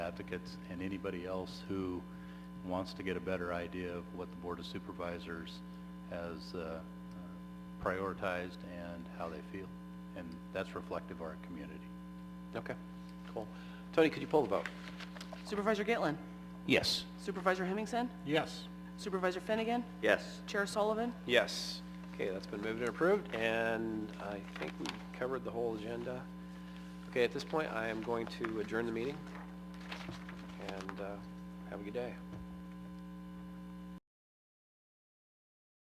advocates and anybody else who wants to get a better idea of what the Board of Supervisors has uh, prioritized and how they feel. And that's reflective of our community. Okay, cool. Tony, could you pull the vote? Supervisor Gitlin? Yes. Supervisor Hemmingson? Yes. Supervisor Finnegan? Yes. Chair Sullivan? Yes. Okay, that's been moved and approved, and I think we covered the whole agenda. Okay, at this point, I am going to adjourn the meeting, and uh, have a good day.